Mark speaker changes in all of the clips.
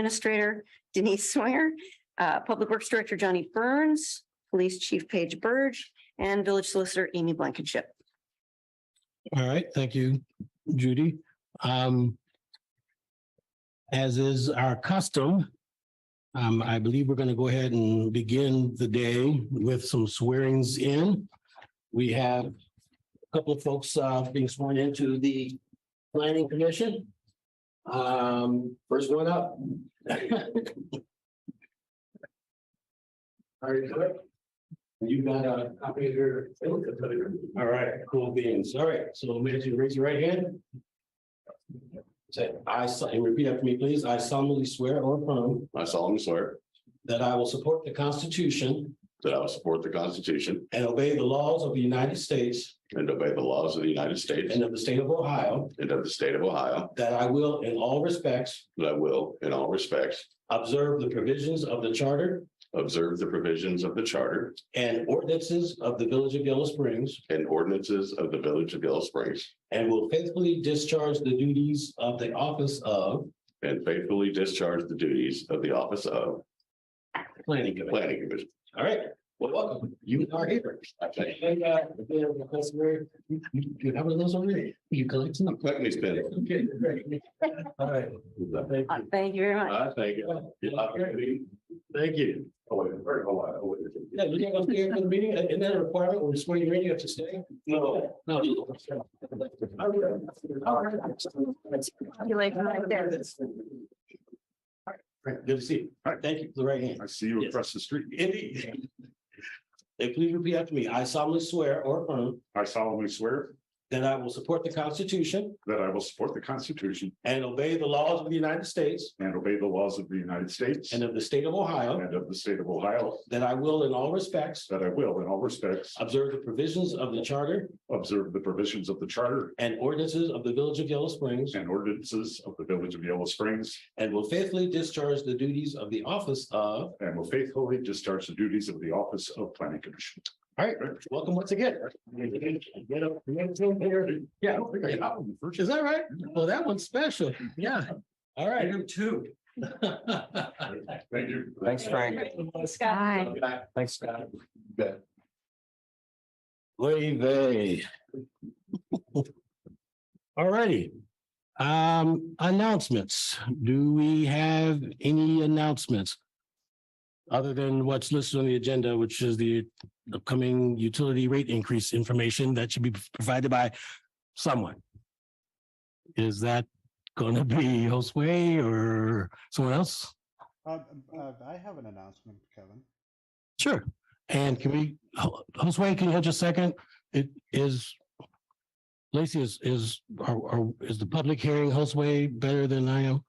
Speaker 1: Administrator Denise Swinger, uh, Public Works Director Johnny Burns, Police Chief Paige Burge, and Village Solicitor Amy Blankenship.
Speaker 2: All right, thank you, Judy. Um, as is our custom, um, I believe we're going to go ahead and begin the day with some swearings in. We have a couple of folks, uh, being sworn into the planning commission. Um, first one up. Are you good? You got uh, a copy of your. All right, cool beans. All right, so would you raise your right hand? Say, I, so- and repeat after me, please. I solemnly swear or affirm
Speaker 3: I solemnly swear
Speaker 2: that I will support the Constitution
Speaker 3: that I will support the Constitution
Speaker 2: and obey the laws of the United States
Speaker 3: and obey the laws of the United States
Speaker 2: and of the state of Ohio,
Speaker 3: and of the state of Ohio,
Speaker 2: that I will in all respects
Speaker 3: that I will, in all respects,
Speaker 2: observe the provisions of the charter
Speaker 3: observe the provisions of the charter
Speaker 2: and ordinances of the village of Yellow Springs
Speaker 3: and ordinances of the village of Yellow Springs
Speaker 2: and will faithfully discharge the duties of the office of
Speaker 3: and faithfully discharge the duties of the office of
Speaker 2: planning commission.
Speaker 3: planning commission.
Speaker 2: All right, well, welcome. You are here.
Speaker 3: I think.
Speaker 2: Hey, uh, we have a customer. You you have those already? You collecting them?
Speaker 3: Let me spin it.
Speaker 2: Okay, great. All right. Thank
Speaker 1: Uh,
Speaker 2: you.
Speaker 1: Thank you very much.
Speaker 3: I thank you. Thank you. Oh, wait, wait, hold on, hold on.
Speaker 2: Yeah, we can go upstairs for the meeting. Isn't that a requirement? We're just waiting, you have to stay? No. No.
Speaker 1: Congratulations right there.
Speaker 2: All right, great. Good to see you. All right, thank you for the right hand.
Speaker 3: I see you
Speaker 2: across
Speaker 3: the street.
Speaker 2: Indeed. Hey, please repeat after me. I solemnly swear or affirm
Speaker 3: I solemnly swear
Speaker 2: that I will support the Constitution
Speaker 3: that I will support the Constitution
Speaker 2: and obey the laws of the United States
Speaker 3: and obey the laws of the United States
Speaker 2: and of the state of Ohio,
Speaker 3: and of the state of Ohio,
Speaker 2: that I will in all respects
Speaker 3: that I will, in all respects,
Speaker 2: observe the provisions of the charter
Speaker 3: observe the provisions of the charter
Speaker 2: and ordinances of the village of Yellow Springs
Speaker 3: and ordinances of the village of Yellow Springs,
Speaker 2: and will faithfully discharge the duties of the office of,
Speaker 3: and will faithfully discharge the duties of the office of planning commission.
Speaker 2: all right, welcome once again. Get up, get up here. Yeah, is that right? Well, that one's special. Yeah. All right. You too.
Speaker 3: Thank you.
Speaker 4: Thanks, Frank.
Speaker 1: Hi.
Speaker 4: Thanks, Scott.
Speaker 2: Wave. All righty. Um, announcements. Do we have any announcements? Other than what's listed on the agenda, which is the upcoming utility rate increase information that should be provided by someone. Is that gonna be Josue or someone else?
Speaker 5: Uh, uh, I have an announcement, Kevin.
Speaker 2: Sure. And can we, Ho- Josue, can you hold just a second? It is. Lacy is, is, are, are, is the public hearing Josue better than I am?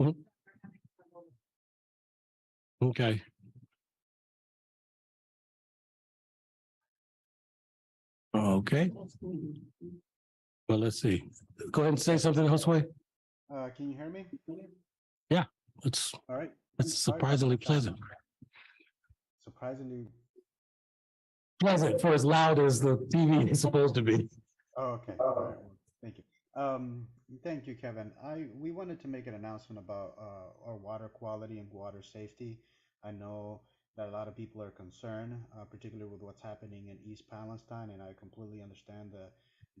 Speaker 2: Hmm? Okay. Okay, well, let's see. Go ahead and say something, Josue.
Speaker 5: Uh, can you hear me?
Speaker 2: It's,
Speaker 5: All right.
Speaker 2: it's
Speaker 5: Sorry about
Speaker 2: surprisingly
Speaker 5: that.
Speaker 2: pleasant.
Speaker 5: Surprisingly,
Speaker 2: Pleasant for as loud as the TV is supposed to be.
Speaker 5: oh, okay. All right, well, Thank you. Um, thank you, Kevin. I, we wanted to make an announcement about, uh, our water quality and water safety. I know that a lot of people are concerned, uh, particularly with what's happening in East Palestine, and I completely understand the,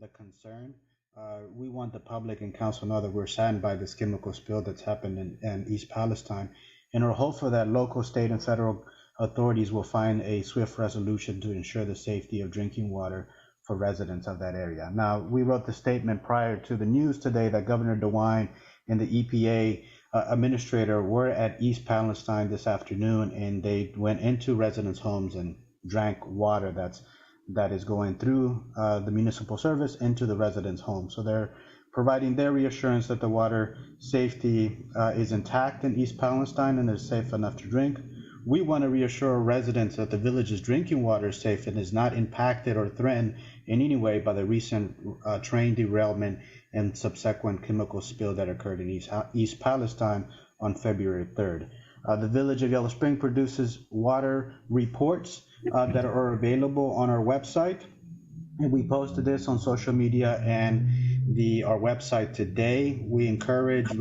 Speaker 5: the concern. Uh, we want the public and council to know that we're saddened by this chemical spill that's happened in, in East Palestine. And are hopeful that local, state, and federal authorities will find a swift resolution to ensure the safety of drinking water for residents of that area. Now, we wrote the statement prior to the news today that Governor DeWine and the EPA uh, administrator were at East Palestine this afternoon, and they went into residents' homes and drank water that's that is going through uh, the municipal service into the residents' home. So they're providing their reassurance that the water safety uh, is intact in East Palestine and is safe enough to drink. We want to reassure residents that the village's drinking water is safe and is not impacted or threatened in any way by the recent uh, train derailment and subsequent chemical spill that occurred in East, uh, East Palestine on February 3rd. Uh, the village of Yellow Spring produces water reports uh, that are available on our website. And we posted this on social media and the our website today. We encourage